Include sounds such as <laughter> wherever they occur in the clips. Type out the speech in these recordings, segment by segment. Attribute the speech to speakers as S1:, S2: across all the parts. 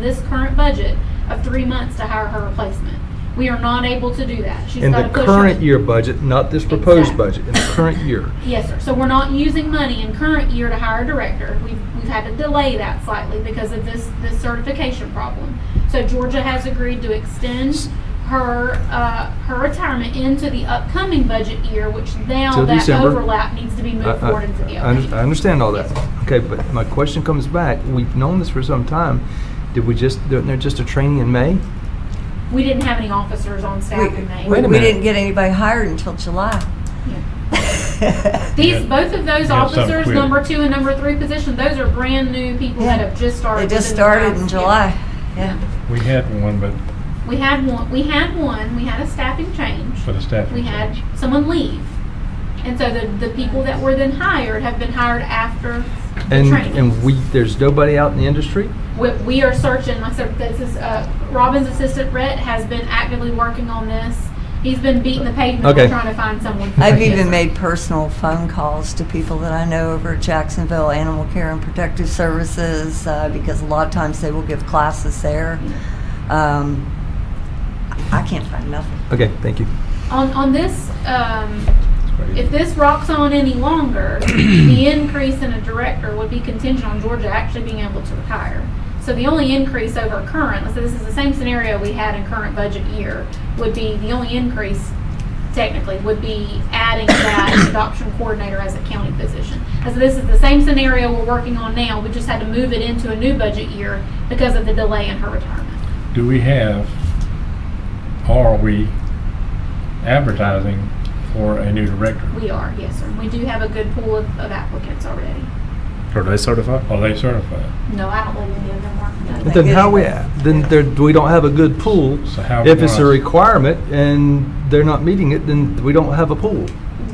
S1: this current budget of three months to hire her replacement. We are not able to do that. She's
S2: In
S1: got
S2: the
S1: to push her.
S2: current year budget, not this proposed
S1: Exactly.
S2: budget, in the current year.
S1: Yes, sir. So we're not using money in current year to hire a director. We've, we've had to delay that slightly because of this, this certification problem. So Georgia has agreed to extend her, uh, her retirement into the upcoming budget year, which now
S2: Till
S1: that
S2: December.
S1: overlap needs to be
S2: I-
S1: moved
S2: I-
S1: forward into the
S2: I under- I
S1: upcoming.
S2: understand all that.
S1: Yes.
S2: Okay, but my question comes back, we've known this for some time. Did we just, did there just a training in May?
S1: We didn't have any officers on
S3: We-
S1: staff in May.
S3: We
S2: Wait a
S3: we
S2: minute.
S3: didn't get anybody hired
S1: <laughs>
S3: until July.
S1: Yeah. These, both of those
S4: Yeah, some
S1: officers,
S4: quit.
S1: number two and number three position, those are brand new people that
S3: Yeah.
S1: have just started.
S3: They just
S1: within the
S3: started in
S1: past year.
S3: July, yeah.
S4: We had one, but
S1: We had one, we had one, we had a staffing change.
S2: uh,
S4: for the staffing.
S1: We had
S4: change.
S1: someone leave. And so the, the people that were then hired have been hired after the
S2: And,
S1: training.
S2: and we, there's nobody out in the industry?
S1: We, we are searching, like I said, this is, uh, Robin's assistant Rhett has been actively working on this. He's been beating the pavement
S2: Okay.
S1: trying to find someone.
S3: I've
S1: Yes, sir.
S3: even made personal phone calls to people that I know over at Jacksonville Animal Care and Protective Services, uh, because a lot of times they will give classes there. Um, I I can't find nothing.
S2: Okay, thank you.
S1: On, on this, um,
S4: That's what he-
S1: if this rocks on any longer, the increase in a director would be contingent on Georgia actually being able to retire. So the only increase over current, so this is the same scenario we had in current budget year, would be, the only increase technically would be adding that <coughs> adoption coordinator as a county position. And so this is the same scenario we're working on now, we just had to move it into a new budget year because of the delay in her retirement.
S4: Do we have, are we advertising for a new director?
S1: We are, yes, sir. We do have a good pool of of applicants already.
S5: Are they certified?
S4: Are they certified?
S1: No, I don't believe any of them are. No,
S3: But
S2: Then
S3: it-
S2: how we, at? then there, we don't have a good pool.
S4: So how
S2: If it's a
S4: wise-
S2: requirement and they're not meeting it, then we don't have a pool.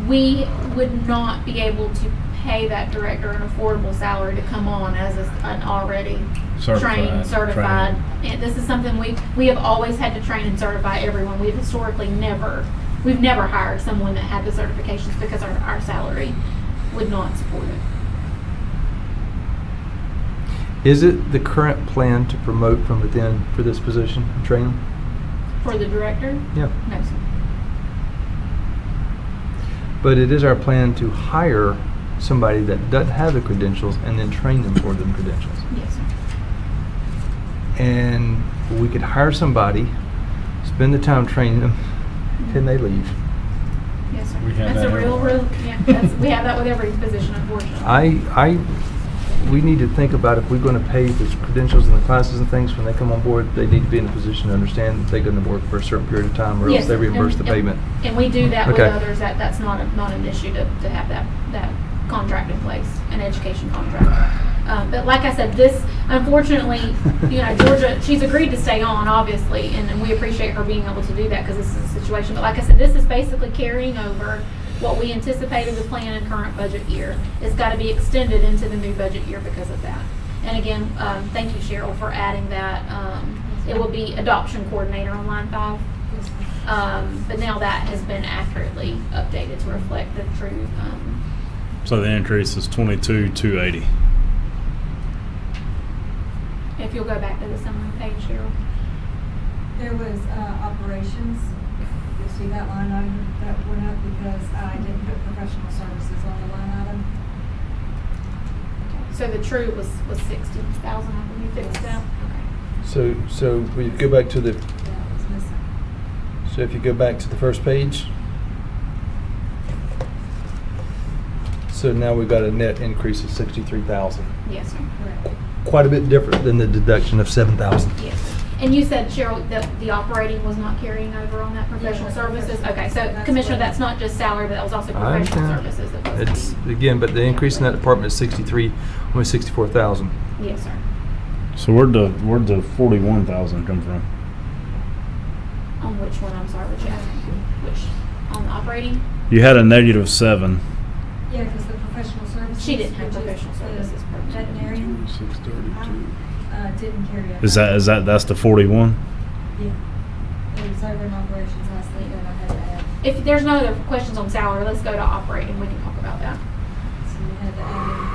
S1: we would not be able to pay that director an affordable salary to come on as a- an already trained, certified.
S4: trained.
S1: And this is something we, we have always had to train and certify everyone. We've historically never, we've never hired someone that had the certifications because our, our salary would not support it.
S2: Is it the current plan to promote from within for this position, train them?
S1: For the director,
S2: Yeah.
S1: no, sir.
S2: But it is our plan to hire somebody that doesn't have the credentials and then train them for them credentials.
S1: Yes, sir.
S2: And we could hire somebody, spend the time training them, then they leave.
S1: Yes, sir.
S4: We have
S1: That's a
S4: that
S1: real,
S4: everywhere.
S1: real, yeah, that's, we have that with every position unfortunately.
S2: I, I, we need to think about if we're gonna pay the credentials and the classes and things when they come on board, they need to be in a position to understand that they're gonna work for a certain period of time or
S1: Yes,
S2: else they reimburse the
S1: and- and-
S2: payment.
S1: And we do that with
S2: Okay.
S1: others, that, that's not, a- not an issue to, to have that, that contract in place, an education contract. Um, but like I said, this, unfortunately, you know, Georgia, she's agreed to stay on, obviously, and, and we appreciate her being able to do that, because this is a situation, but like I said, this is basically carrying over what we anticipated the plan in current budget year. It's gotta be extended into the new budget year because of that. And again, um, thank you Cheryl for adding that, um, it will be adoption coordinator on line five. Um, but now that has been accurately updated to reflect the true, um,
S5: So the increase is twenty-two, two eighty.
S1: if you'll go back to the summary page, Cheryl.
S6: There was uh, operations, you see that line item that went up because I didn't put professional services on the line item.
S1: So the true was, was sixty thousand, I believe, fixed up.
S2: So, so we go back to the,
S6: That was missing.
S2: so if you go back to the first page. So now we've got a net increase of sixty-three thousand,
S1: Yes, sir.
S6: Correct.
S2: quite a bit different than the deduction of seven thousand.
S1: Yes. And you said, Cheryl, that the operating was not carrying over on that professional
S6: Yeah,
S1: services?
S6: professional.
S1: Okay, so
S6: That's
S1: Commissioner,
S6: what-
S1: that's not just salary, but that was also
S2: I
S1: professional
S2: understand.
S1: services that was.
S2: It's, again, but the increase in that department is sixty-three, almost sixty-four thousand.
S1: Yes, sir.
S5: So where'd the, where'd the forty-one thousand come from?
S1: On which one, I'm sorry, which, which, on the operating?
S5: You had a negative seven.
S6: Yeah, because the professional services.
S1: She didn't have
S6: which is
S1: professional
S6: the
S1: services permit.
S6: Veterinarian, uh, didn't carry over.
S5: Is that, is that, that's the forty-one?
S6: Yeah. It was over in operations last week and I had to add,
S1: If there's no other questions on salary, let's go to operating, we can talk about that.
S6: so we had to add in